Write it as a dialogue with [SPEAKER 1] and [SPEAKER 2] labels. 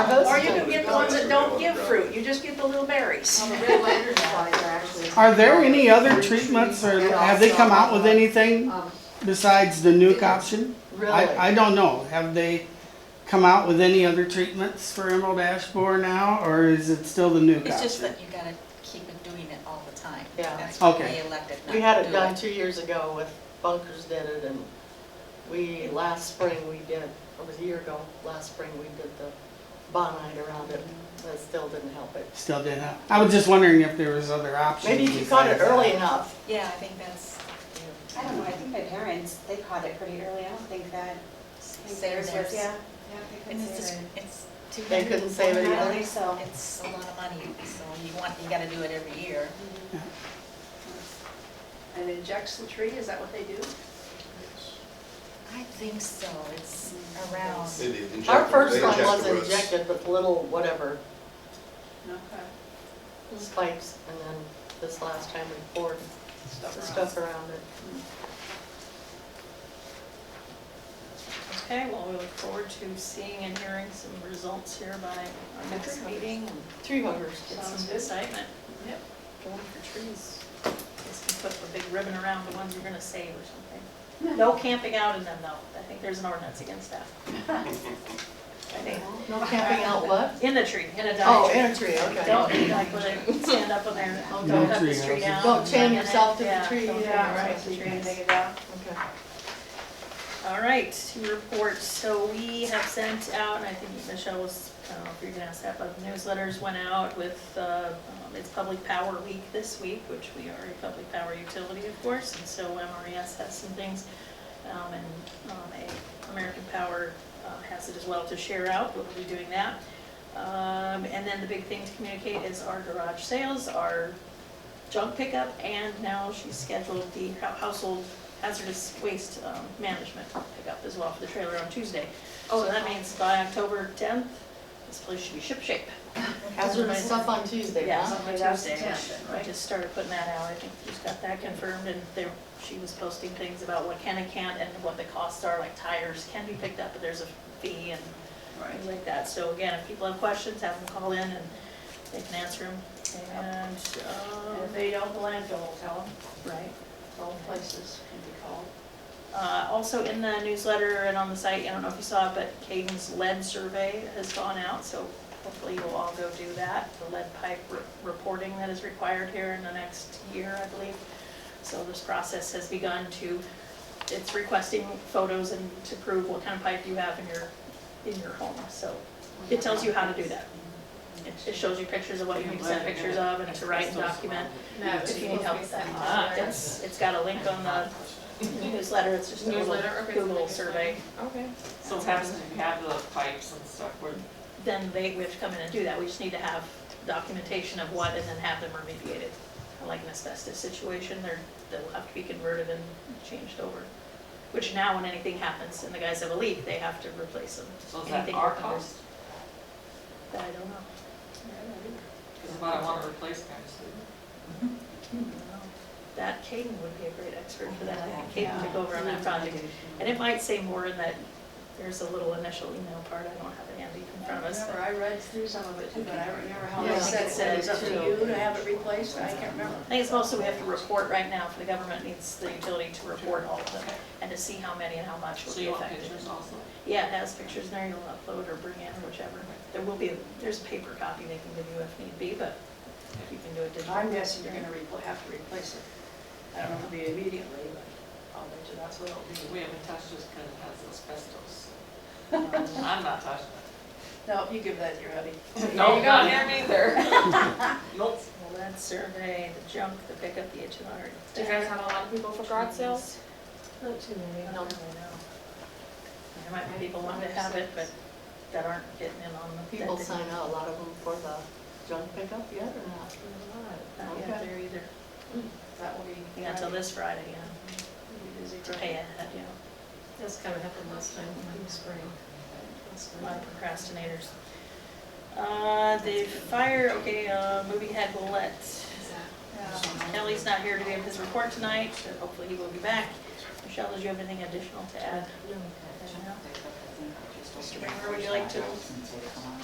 [SPEAKER 1] us?
[SPEAKER 2] Or you can get the ones that don't give fruit, you just get the little berries.
[SPEAKER 3] On the Red Lantern flies are actually.
[SPEAKER 1] Are there any other treatments or have they come out with anything
[SPEAKER 3] Um,
[SPEAKER 1] besides the nuke option?
[SPEAKER 3] Really?
[SPEAKER 1] I, I don't know. Have they come out with any other treatments for emerald ash borer now or is it still the nuke
[SPEAKER 4] It's just
[SPEAKER 1] option?
[SPEAKER 4] that you gotta keep doing it all the time.
[SPEAKER 5] Yeah.
[SPEAKER 4] That's why
[SPEAKER 1] Okay.
[SPEAKER 4] they elected not to do it.
[SPEAKER 5] We had it done two years ago with Bunkers did it and we, last spring we did, it was a year ago, last spring we did the bonite around it. That still didn't help it.
[SPEAKER 1] Still didn't have. I was just wondering if there was other options.
[SPEAKER 5] Maybe if you caught it
[SPEAKER 1] besides that.
[SPEAKER 5] early enough.
[SPEAKER 4] Yeah, I think that's,
[SPEAKER 6] I don't know, I think my parents, they caught it pretty early, I don't think that.
[SPEAKER 4] Saved
[SPEAKER 6] theirs was-
[SPEAKER 4] theirs.
[SPEAKER 6] Yeah.
[SPEAKER 4] and it's just, it's too.
[SPEAKER 5] They couldn't save
[SPEAKER 6] I
[SPEAKER 5] it
[SPEAKER 6] don't
[SPEAKER 5] either.
[SPEAKER 6] think so.
[SPEAKER 4] It's a lot of money, so you want, you gotta do it every year.
[SPEAKER 2] And injects the tree, is that what they do?
[SPEAKER 4] I think so, it's around.
[SPEAKER 7] They did inject
[SPEAKER 5] Our
[SPEAKER 7] them-
[SPEAKER 5] first
[SPEAKER 7] they
[SPEAKER 5] one
[SPEAKER 7] inject
[SPEAKER 5] was
[SPEAKER 7] the roots.
[SPEAKER 5] injected with little whatever, little spikes, and then this last time we poured the stuff around it.
[SPEAKER 8] Okay, well, we look forward to seeing and hearing some results here by our next meeting and
[SPEAKER 5] Tree huggers.
[SPEAKER 8] get some excitement. Yep, going for trees. Guess we put a big ribbon around the ones we're gonna save or something. No camping out in them though. I think there's an ordinance against that. I think,
[SPEAKER 5] No camping out what?
[SPEAKER 8] in the tree, in a
[SPEAKER 5] Oh,
[SPEAKER 8] dying tree.
[SPEAKER 5] in a tree, okay.
[SPEAKER 8] Don't, like, when they stand up when they're,
[SPEAKER 5] Oh,
[SPEAKER 8] don't cut the
[SPEAKER 1] tree houses.
[SPEAKER 8] tree down.
[SPEAKER 5] Don't chain yourself to the
[SPEAKER 8] Yeah,
[SPEAKER 5] tree,
[SPEAKER 8] don't chain
[SPEAKER 5] yeah,
[SPEAKER 8] yourself
[SPEAKER 5] right.
[SPEAKER 8] to the trees.
[SPEAKER 5] Okay.
[SPEAKER 8] All right, two reports. So we have sent out, and I think Michelle was, I don't know if you're gonna ask that, but newsletters went out with, uh, um, it's Public Power Week this week, which we are a public power utility, of course, and so MRES has some things. um, And um, a- American Power uh, has it as well to share out, we'll be doing that. Um, And then the big thing to communicate is our garage sales, our junk pickup, and now she's scheduled the hou- household hazardous waste um, management pickup as well for the trailer on Tuesday. So that means by October 10th, this place should be shipshape.
[SPEAKER 5] Hazard my stuff on Tuesday,
[SPEAKER 8] Yeah,
[SPEAKER 5] huh?
[SPEAKER 8] on
[SPEAKER 3] Okay, that's
[SPEAKER 8] Tuesday,
[SPEAKER 3] the tenth
[SPEAKER 8] which I just started putting that out, I think she's got that confirmed, and there, she was posting things about what can and can't, and what the costs are, like tires can be picked up, but there's a fee and things like that. So again, if people have questions, have them call in and they can answer them, and,
[SPEAKER 2] And if
[SPEAKER 8] um,
[SPEAKER 2] they don't, the landfill will tell them,
[SPEAKER 8] right.
[SPEAKER 2] all places can be called.
[SPEAKER 8] Uh, Also in the newsletter and on the site, I don't know if you saw it, but Caden's lead survey has gone out, so hopefully you'll all go do that. The lead pipe re- reporting that is required here in the next year, I believe. So this process has begun to, it's requesting photos and to prove what kind of pipe you have in your, in your home. So it tells you how to do that. It- It shows you pictures of what you need to send pictures of and to write and document if you need help with that. It's, it's got a link on the newsletter, it's just a little
[SPEAKER 9] Newsletter, okay, so
[SPEAKER 8] Google
[SPEAKER 9] like a
[SPEAKER 8] survey.
[SPEAKER 9] Okay.
[SPEAKER 8] So
[SPEAKER 9] So
[SPEAKER 8] it
[SPEAKER 9] have,
[SPEAKER 8] has to
[SPEAKER 9] have the pipes and stuff, where
[SPEAKER 8] Then they, we have to come in and do that, we just need to have documentation of what and then have them remediated. Like an asbestos situation, they're, they'll have to be converted and changed over. Which now, when anything happens and the guys have a leak, they have to replace them.
[SPEAKER 9] so is that
[SPEAKER 8] Anything
[SPEAKER 9] our
[SPEAKER 8] that covers-
[SPEAKER 9] cost?
[SPEAKER 8] That I don't know.
[SPEAKER 9] Because if I don't want to replace guys,
[SPEAKER 8] That Caden would be a great expert for that, I think Caden would go over on that project. And it might say more in that, there's a little initial email part, I don't have it handy in front of us. but-
[SPEAKER 2] Remember, I read through some of it too, but I don't remember how
[SPEAKER 8] Yeah,
[SPEAKER 2] they
[SPEAKER 8] I think
[SPEAKER 2] said
[SPEAKER 8] it
[SPEAKER 2] it was
[SPEAKER 8] said
[SPEAKER 2] up to
[SPEAKER 8] too.
[SPEAKER 2] you to have it replaced, I can't remember.
[SPEAKER 8] I think it's mostly we have to report right now, for the government needs the utility to report all of them, and to see how many and how much will
[SPEAKER 9] so
[SPEAKER 8] be
[SPEAKER 9] you want
[SPEAKER 8] affected.
[SPEAKER 9] pictures also?
[SPEAKER 8] Yeah, it has pictures there, you'll upload or bring in, whichever. There will be, there's a paper copy they can give you if need be, but you can do it digitally.
[SPEAKER 2] I'm guessing you're gonna repl- have to replace it. I don't know if it'll be immediately, but I'll bet you that's what it'll be.
[SPEAKER 9] We haven't touched this because it has asbestos. I'm not touching
[SPEAKER 2] No, you give that to your hubby.
[SPEAKER 9] it. No, not here neither. Nope.
[SPEAKER 8] Well, that survey, the junk, the pickup, the H and R.
[SPEAKER 9] Do you guys have a lot of people for garage sales?
[SPEAKER 8] Not too many, I don't really know. There might be people wanting to have it, but that aren't getting in on the.
[SPEAKER 5] People
[SPEAKER 8] that
[SPEAKER 5] sign out, a lot of them for the junk pickup yet or not?
[SPEAKER 8] didn't- Not yet there either.
[SPEAKER 2] That will be.
[SPEAKER 8] Yeah, until this Friday, yeah.
[SPEAKER 2] Busy
[SPEAKER 8] to
[SPEAKER 2] time.
[SPEAKER 8] pay ahead, you know,
[SPEAKER 9] That's kind of happened last time in the spring.
[SPEAKER 8] a lot of procrastinators. Uh, the fire, okay, uh, moving ahead, we'll let, uh, Kelly's not here to give his report tonight, but hopefully he will be back. Michelle, did you have anything additional to add?
[SPEAKER 3] No.
[SPEAKER 8] Mr. Bremer, would you like to